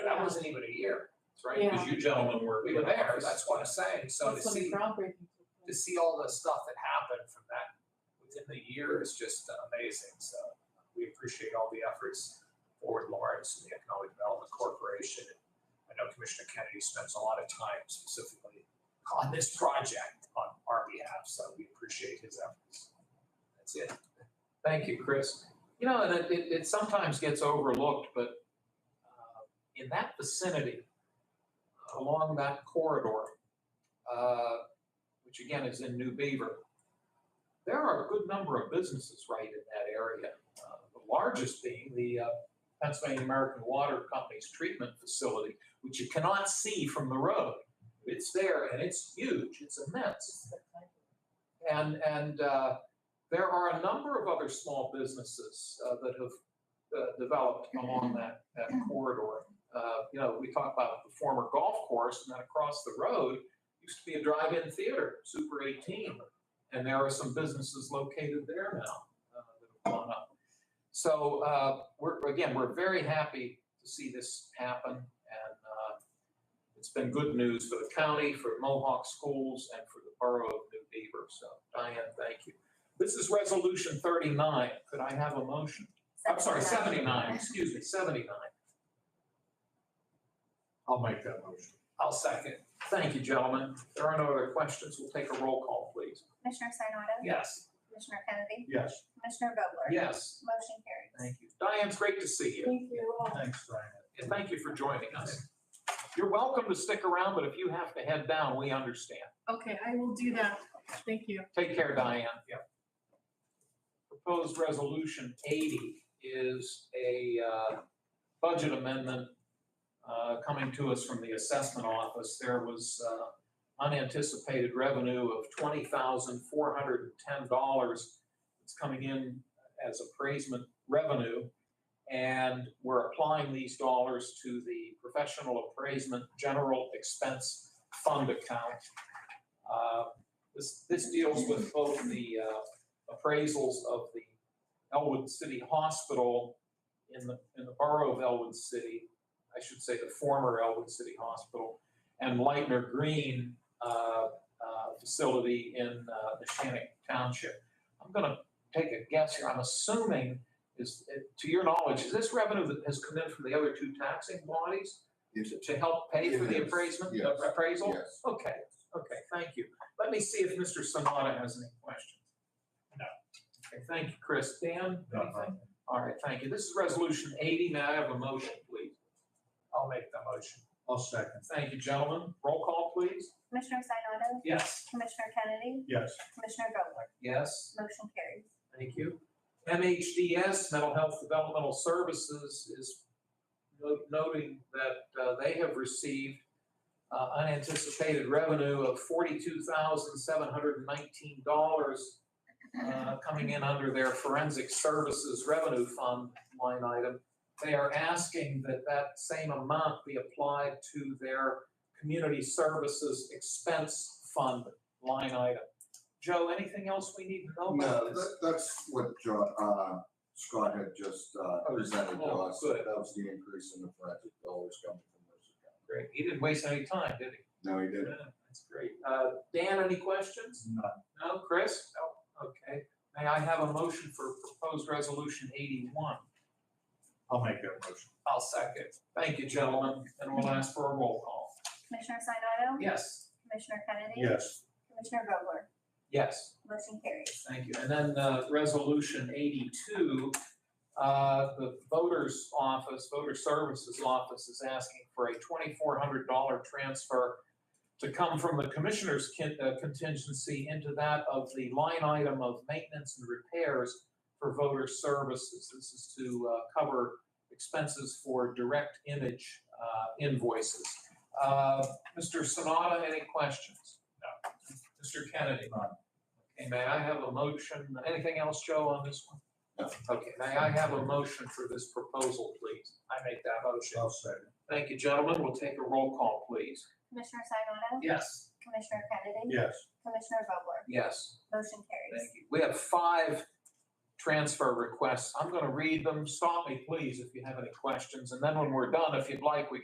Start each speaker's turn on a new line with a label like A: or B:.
A: wasn't even a year.
B: That's right, because you gentlemen were.
A: We were there, that's what I'm saying. So to
C: That's when
A: see,
C: the groundbreaking took
A: to
C: place.
A: see all the stuff that happened from that within the year is just amazing. So we appreciate all the efforts Forward Lawrence and the Economic Development Corporation. I know Commissioner Kennedy spends a lot of time specifically on this project on our behalf, so we appreciate his efforts. That's it.
B: Thank you, Chris. You know, and it, it, it sometimes gets overlooked, but uh, in that vicinity, along that corridor, uh, which again is in New Beaver, there are a good number of businesses right in that area. Uh, The largest being the uh, Pennsylvania American Water Company's treatment facility, which you cannot see from the road. It's there and it's huge, it's immense. And, and uh, there are a number of other small businesses uh, that have uh, developed along that, that corridor. Uh, You know, we talk about the former golf course, and then across the road used to be a drive-in theater, Super 18. And there are some businesses located there now uh, that have gone up. So uh, we're, again, we're very happy to see this happen, and uh, it's been good news for the county, for Mohawk schools, and for the borough of New Beaver. So Diane, thank you. This is Resolution 39. Could I have a motion? I'm sorry, 79, excuse me, 79.
A: I'll make that motion.
B: I'll second. Thank you, gentlemen. If there are no other questions, we'll take a roll call, please.
D: Commissioner Sinata?
B: Yes.
D: Commissioner Kennedy?
A: Yes.
D: Commissioner Vogler?
B: Yes.
D: Motion carries.
B: Thank you. Diane, it's great to see you.
C: Thank you all.
A: Thanks, Brian.
B: And thank you for joining us. You're welcome to stick around, but if you have to head down, we understand.
C: Okay, I will do that. Thank you.
B: Take care, Diane. Yep. Proposed Resolution 80 is a uh, budget amendment uh, coming to us from the assessment office. There was uh, unanticipated revenue of $20,410. It's coming in as appraisement revenue. And we're applying these dollars to the professional appraisement general expense fund account. Uh, this, this deals with both the uh, appraisals of the Elwood City Hospital in the, in the borough of Elwood City, I should say the former Elwood City Hospital, and Lightner Green uh, uh, Facility in uh, Neshannock Township. I'm going to take a guess here. I'm assuming, is, uh, to your knowledge, is this revenue that has come in from the other two taxing bodies
E: Yes,
B: to- to help pay for the
E: It is,
B: appraisement,
E: yes,
B: appraisal?
E: yes.
B: Okay, okay, thank you. Let me see if Mr. Sanada has any questions.
A: No.
B: Okay, thank you, Chris. Dan,
A: No.
B: anything? All right, thank you. This is Resolution 80. May I have a motion, please?
A: I'll make the motion. I'll second.
B: Thank you, gentlemen. Roll call, please.
D: Commissioner Sinata?
B: Yes.
D: Commissioner Kennedy?
A: Yes.
D: Commissioner Vogler?
B: Yes,
D: Motion carries.
B: thank you. MHDS, Mental Health Developmental Services, is no- noting that uh, they have received uh, unanticipated revenue of $42,719 uh, coming in under their forensic services revenue fund line item. They are asking that that same amount be applied to their community services expense fund line item. Joe, anything else we need to know
E: No,
B: about this?
E: that, that's what, Jo- uh, Scott had just, uh,
B: Oh,
E: presented to
B: oh,
E: us.
B: good.
E: That was the increase in the forensic dollars coming from those accounts.
B: Great, he didn't waste any time, did he?
E: No, he didn't.
B: Yeah, That's great. Uh, Dan, any questions?
A: None.
B: No, Chris? No. Okay, may I have a motion for proposed resolution eighty-one?
A: I'll make that motion.
B: I'll second. Thank you, gentlemen, and we'll ask for a roll call.
D: Commissioner Sinata?
B: Yes.
D: Commissioner Kennedy?
A: Yes.
D: Commissioner Vogler?
B: Yes.
D: Motion carries.
B: Thank you. And then uh, Resolution 82, uh, the Voters Office, Voter Services Office is asking for a $2,400 transfer to come from the Commissioner's kin- uh, contingency into that of the line item of maintenance and repairs for voter services. This is to uh, cover expenses for direct image uh, invoices. Uh, Mr. Sanada, any questions? No. Mr. Kennedy? Okay, may I have a motion, anything else, Joe, on this one?
E: No.
B: Okay, may I have a motion for this proposal, please? I make that motion.
A: I'll second.
B: Thank you, gentlemen, we'll take a roll call, please.
D: Commissioner Sinata?
B: Yes.
D: Commissioner Kennedy?
A: Yes.
D: Commissioner Vogler?
B: Yes,
D: Motion carries.
B: thank you. We have five transfer requests, I'm gonna read them, stop me, please, if you have any questions, and then when we're done, if you'd like, we can